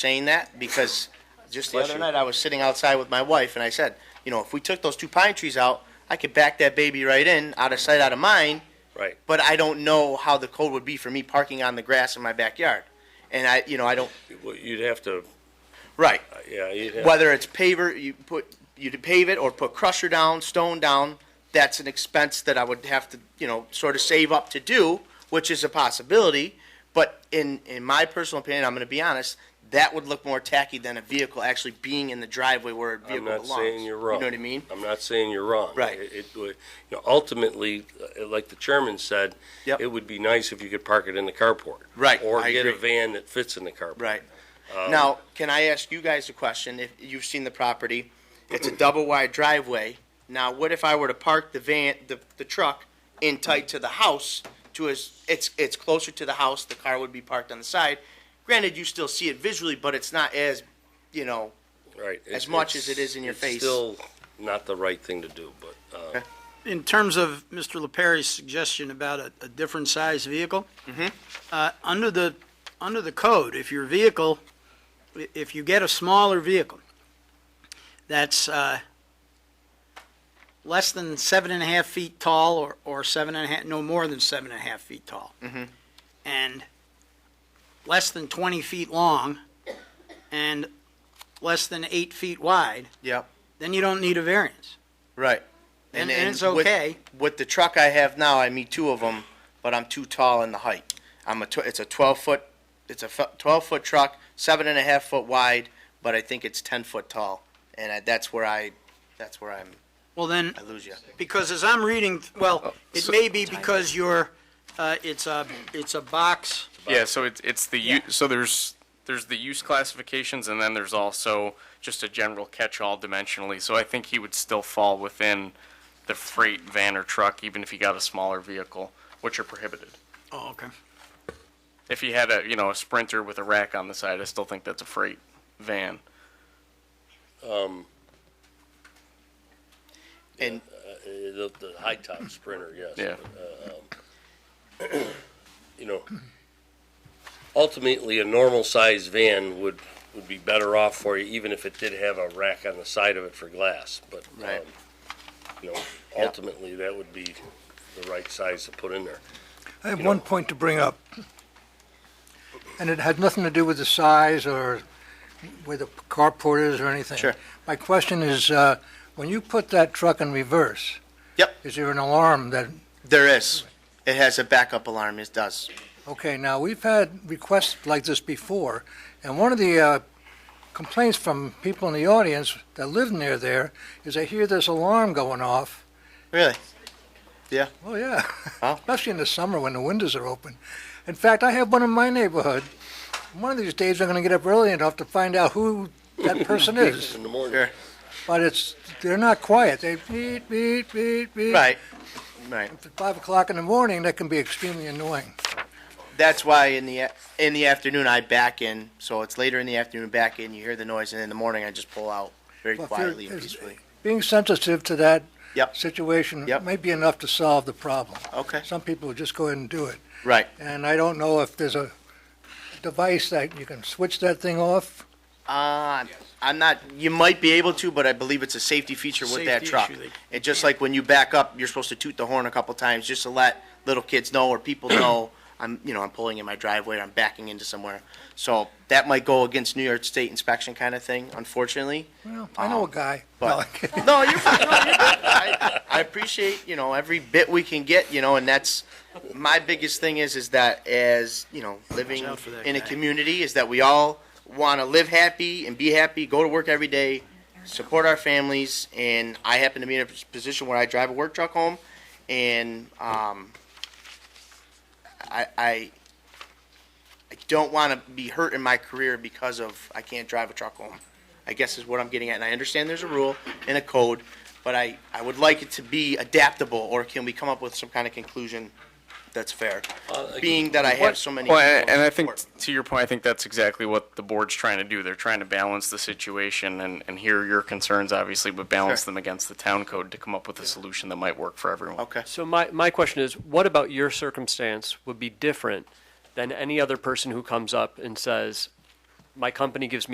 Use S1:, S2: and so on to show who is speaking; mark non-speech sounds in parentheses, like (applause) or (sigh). S1: saying that because just the other night I was sitting outside with my wife and I said, you know, if we took those two pine trees out, I could back that baby right in, out of sight, out of mind.
S2: Right.
S1: But I don't know how the code would be for me parking on the grass in my backyard. And I, you know, I don't,
S2: Well, You'd have to,
S1: right.
S2: yeah, you'd have,
S1: Whether it's paver, you put, you pave it or put crusher down, stone down, that's an expense that I would have to, you know, sort of save up to do, which is a possibility. But in, in my personal opinion, I'm gonna be honest, that would look more tacky than a vehicle actually being in the driveway where a
S2: I'm
S1: vehicle
S2: not
S1: belongs.
S2: saying you're wrong.
S1: You know what I mean?
S2: I'm not saying you're wrong.
S1: Right.
S2: It, it would- you know, ultimately, uh, like the chairman said,
S1: Yep.
S2: it would be nice if you could park it in the carport.
S1: Right,
S2: Or
S1: I
S2: get a
S1: agree.
S2: van that fits in the carport.
S1: Right.
S3: Um,
S1: Now, can I ask you guys a question? If you've seen the property, it's a double wide driveway. Now, what if I were to park the van, the, the truck in tight to the house to as, it's, it's closer to the house, the car would be parked on the side. Granted, you still see it visually, but it's not as, you know,
S2: Right.
S1: As
S2: It's-
S1: much as
S2: it's-
S1: it is in your face.
S2: It's still not the right thing to do, but, uh,
S3: In terms of Mr. LaPerry's suggestion about a, a different size vehicle, uh, under the, under the code, if your vehicle, i- if you get a smaller vehicle that's, uh, less than seven and a half feet tall or, or seven and a half, no more than seven and a half feet tall. And less than twenty feet long and less than eight feet wide,
S1: yep,
S3: then you don't need a variance.
S1: right.
S3: And, and it's
S1: with-
S3: okay.
S1: With the truck I have now, I meet two of them, but I'm too tall in the height. I'm a, tw- it's a twelve foot, it's a f- twelve foot truck, seven and a half foot wide, but I think it's ten foot tall, and I, that's where I, that's where I'm,
S3: Well, then,
S1: I lose you.
S3: because as I'm reading, well, it
S4: so-
S3: may be because you're, uh, it's a, it's a box,
S4: Yeah, so it's it's the u-
S3: Yeah.
S4: so there's there's the use classifications and then there's also just a general catch-all dimensionally. So I think he would still fall within the freight van or truck even if he got a smaller vehicle, which are prohibited.
S3: oh, okay.
S4: If he had a, you know, a sprinter with a rack on the side, I still think that's a freight van.
S1: And
S2: uh, the, the high top sprinter, yes.
S4: Yeah.
S2: But, uh, um, (clears throat) You know, ultimately, a normal size van would, would be better off for you, even if it did have a rack on the side of it for glass, but,
S1: Right.
S2: um, you know, ultimately, that would be the right size to put in there.
S5: I have
S2: You know-
S5: one point to bring up, and it has nothing to do with the size or where the carport is or anything.
S1: Sure.
S5: My question is, uh, when you put that truck in reverse,
S1: Yep.
S5: is there an alarm that,
S1: there is, it has a backup alarm. It does.
S5: okay, now, we've had requests like this before, and one of the uh, complaints from people in the audience that live near there is they hear this alarm going off.
S1: Really?
S5: Oh, yeah.
S1: Wow.
S5: (laughs) Especially in the summer when the windows are open. In fact, I have one in my neighborhood. One of these days, I'm going to get up early enough to find out who that
S1: (laughs)
S5: person is.
S2: In the morning,
S1: Sure.
S5: But it's they're not quiet. They beep, beep, beep, beep.
S1: Right. Right.
S5: At five o'clock in the morning, that can be extremely annoying.
S1: That's why in the in the afternoon I back in, so it's later in the afternoon back in. You hear the noise, and in the morning I just pull out very
S5: Well, if you're-
S1: quietly and
S5: if-
S1: peacefully.
S5: Being sensitive to that
S1: Yep.
S5: situation
S1: Yep.
S5: might be enough to solve the problem.
S1: Okay.
S5: Some people will just go ahead and do it.
S1: Right.
S5: And I don't know if there's a device that you can switch that thing off.
S1: Uh, I'm not, you might be able to, but I believe it's a safety feature with that
S3: Safety
S1: truck.
S3: issue, they-
S1: It just like when you back up, you're supposed to toot the horn a couple times just to let little kids know or people
S3: (clears throat)
S1: know, I'm, you know, I'm pulling in my driveway, or I'm backing into somewhere. So that might go against New York State inspection kind of thing, unfortunately.
S5: Well, I know a guy.
S1: Ah, But,
S5: No,
S1: (laughs) no, you're fine. No, you're good. I, I appreciate, you know, every bit we can get, you know, and that's, my biggest thing is, is that as, you know, living
S3: out for that
S1: in a
S3: guy.
S1: community is that we all want to live happy and be happy, go to work every day, support our families, and I happen to be in a position where I drive a work truck home, and, um, I, I, I don't want to be hurt in my career because of I can't drive a truck home. I guess is what I'm getting at. And I understand there's a rule and a code, but I, I would like it to be adaptable, or can we come up with some kind of conclusion that's fair? Being that I have so many.
S4: Well, and,
S1: people in
S4: and I think
S1: support.
S4: to your point, I think that's exactly what the board's trying to do. They're trying to balance the situation and, and hear your concerns, obviously, but balance
S1: Sure.
S4: them against the town code to come up with a solution that might work for everyone.
S1: Okay.
S6: So my, my question is, what about your circumstance would be different than any other person who comes up and says, my company gives me